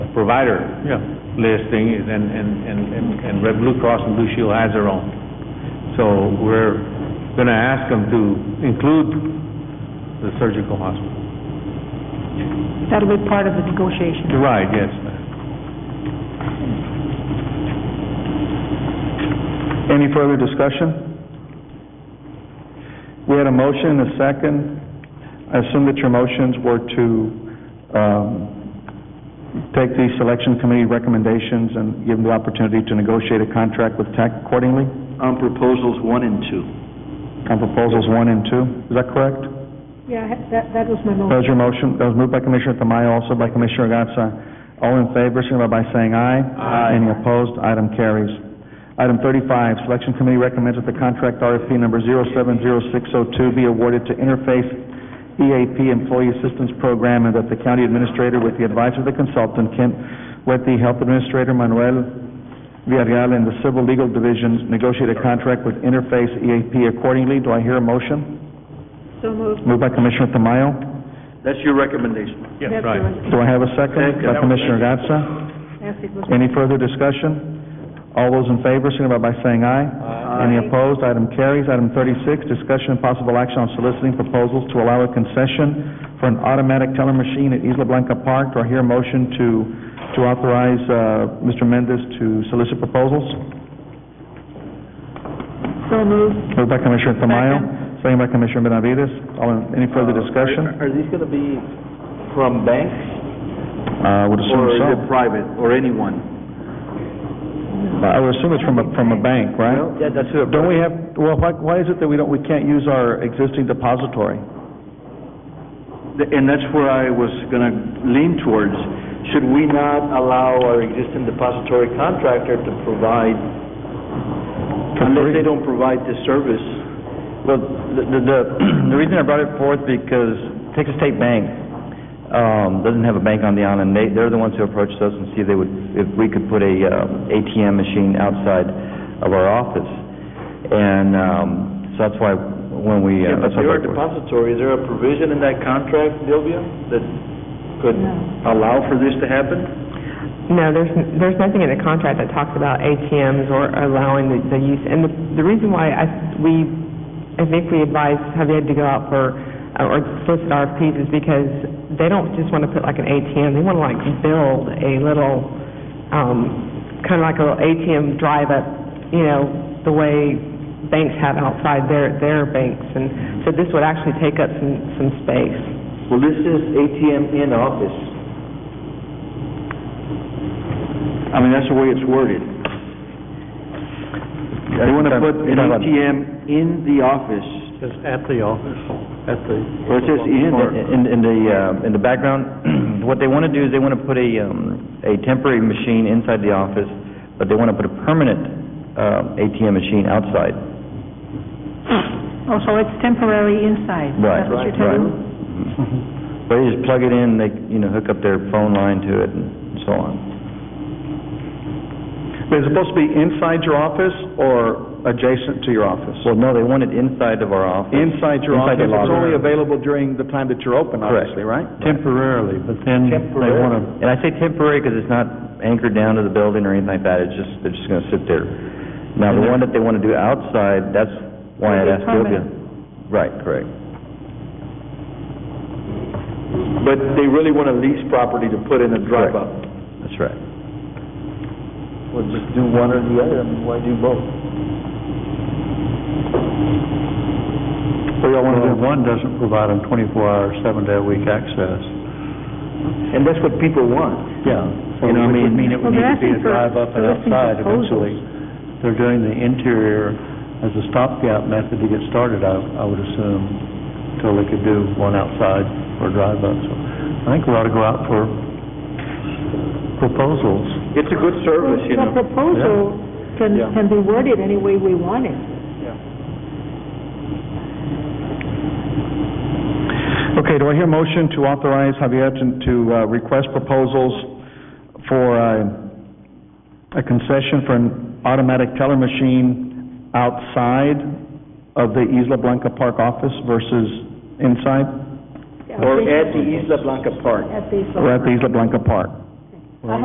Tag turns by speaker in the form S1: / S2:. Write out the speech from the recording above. S1: provider
S2: Yeah.
S1: listing, and, and, and, and- and Red Blue Cross and Blue Shield has their own. So we're gonna ask them to include the surgical hospital.
S3: That'll be part of the negotiation.
S1: You're right, yes, ma'am.
S2: Any further discussion? We had a motion and a second. I assume that your motions were to um, take the selection committee recommendations and give them the opportunity to negotiate a contract with TAC accordingly
S4: On proposals one and two.
S2: on proposals one and two. Is that correct?
S3: Yeah, I- that, that was my motion.
S2: That was your motion, that was moved by Commissioner Tamayo, also by Commissioner Gatsa. All in favor, signify by saying aye. Aye. Any opposed, item carries. Item thirty-five, Selection Committee recommends that the contract RFP number 070602 be awarded to Interface EAP Employee Assistance Program, and that the county administrator, with the advice of the consultant, Kent Wetty, Health Administrator Manuel Villarreal, and the Civil Legal Division, negotiate a contract with Interface EAP accordingly. Do I hear a motion?
S3: So moved.
S2: Moved by Commissioner Tamayo.
S4: That's your recommendation.
S1: Yes,
S3: That's
S1: right.
S3: the-
S2: Do I have a second? By Commissioner Gatsa.
S3: Yes, it was.
S2: Any further discussion? All those in favor, signify by saying aye. Any opposed, item carries. Item thirty-six, discussion and possible action on soliciting proposals to allow a concession for an automatic teller machine at Isla Blanca Park. Do I hear a motion to, to authorize, uh, Mr. Mendez to solicit proposals?
S3: So moved.
S2: Moved by Commissioner Tamayo, second by Commissioner Benavides. All in, any further discussion?
S4: Are these gonna be from banks,
S2: Uh, would assume
S4: or
S2: so.
S4: is it private, or anyone?
S2: I would assume it's from a, from a bank, right?
S4: Yeah, that's who.
S2: Don't we have, well, why, why is it that we don't, we can't use our existing depository?
S4: And that's where I was gonna lean towards. Should we not allow our existing depository contractor to provide, unless they don't provide this service?
S5: Well, the, the- the, the reason I brought it forth because Texas State Bank, um, doesn't have a bank on the island. They, they're the ones who approached us and see if they would, if we could put a, uh, ATM machine outside of our office. And, um, so that's why when we,
S4: Yeah, but
S5: uh, that's why
S4: they're
S5: I
S4: a
S5: brought it forth.
S4: depository, is there a provision in that contract, Sylvia, that could allow for this to happen?
S6: No, there's, there's nothing in the contract that talks about ATMs or allowing the, the use. And the, the reason why I, we, I think we advised Javier to go out for, uh, or solicit RFPs is because they don't just want to put like an ATM, they want to like build a little, um, kind of like a little ATM drive-up, you know, the way banks have outside their, their banks. And so this would actually take up some, some space.
S4: Well, this is ATM in office. I mean, that's the way it's worded. They want to put an ATM in the office.
S1: It's at the office, at the...
S4: Or it says in,
S5: In, in the, uh, in the background, what they want to do is they want to put a, um, a temporary machine inside the office, but they want to put a permanent, uh, ATM machine outside.
S3: Oh, so it's temporary inside.
S5: Right,
S3: That's what
S5: right, Mm-hmm.
S3: you're telling me?
S5: But they just plug it in, they, you know, hook up their phone line to it and so on.
S2: Is it supposed to be inside your office or adjacent to your office?
S5: Well, no, they want it inside of our office.
S2: Inside your
S5: Inside
S2: office,
S5: the
S2: it's
S5: lobby.
S2: only available during the time that you're open, obviously, right?
S1: Temporarily, but then they
S4: Temporarily.
S1: wanna...
S5: And I say temporary because it's not anchored down to the building or anything like that, it's just, they're just gonna sit there. Now, the one that they want to do outside, that's why I'd
S3: It'll be
S5: asked Sylvia.
S3: permanent.
S5: Right, correct.
S4: but they really want to lease property to put in a drive-up.
S5: That's right.
S4: Well, just do one or the other, I mean, why do both?
S2: What do y'all want to do?
S1: One doesn't provide them 24-hour, seven-day-a-week access.
S4: And that's what people want.
S1: Yeah.
S4: You know, I mean-
S1: Which would mean it would
S3: Well,
S1: need to be
S3: they're
S1: a
S3: asking for-
S1: drive-up and
S3: they're asking for
S1: outside
S3: proposals.
S1: eventually. They're doing the interior as a stopgap method to get started, I, I would assume, till they could do one outside or drive-up. So I think we ought to go out for proposals.
S4: It's a good service, you
S3: The
S4: know.
S3: proposal can,
S4: Yeah.
S3: can be worded any way we want it.
S2: Okay, do I hear a motion to authorize Javier to, to uh, request proposals for uh, a concession for an automatic teller machine outside of the Isla Blanca Park office versus inside,
S3: I
S4: Or
S3: think
S4: at the Isla Blanca Park.
S3: At the.
S2: or at the Isla Blanca Park?